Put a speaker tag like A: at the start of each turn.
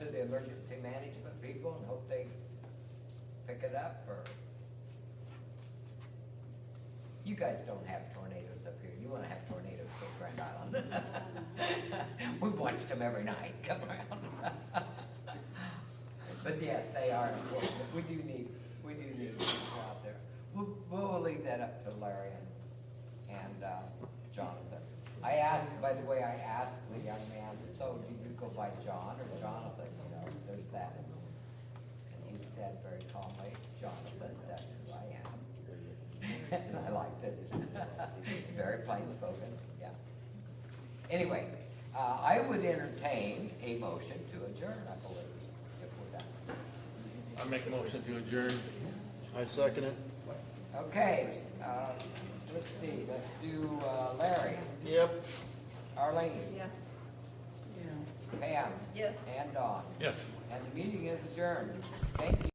A: the emergency management people and hope they pick it up, or? You guys don't have tornadoes up here, you wanna have tornadoes for Grand Island. We've watched them every night come around. But yes, they are important, we do need, we do need people out there. We'll, we'll leave that up to Larry and, and, uh, Jonathan. I asked, by the way, I asked the young man, so do you go by John or Jonathan, you know, there's that. And he said very calmly, Jonathan, that's who I am. And I liked it. Very plain spoken, yeah. Anyway, uh, I would entertain a motion to adjourn, I believe, if we're done.
B: I make a motion to adjourn.
C: I second it.
A: Okay, uh, let's see, let's do, uh, Larry,
C: Yep.
A: Arlene,
D: Yes.
A: Pam.
D: Yes.
A: And Don.
B: Yes.
A: And the meeting is adjourned. Thank you.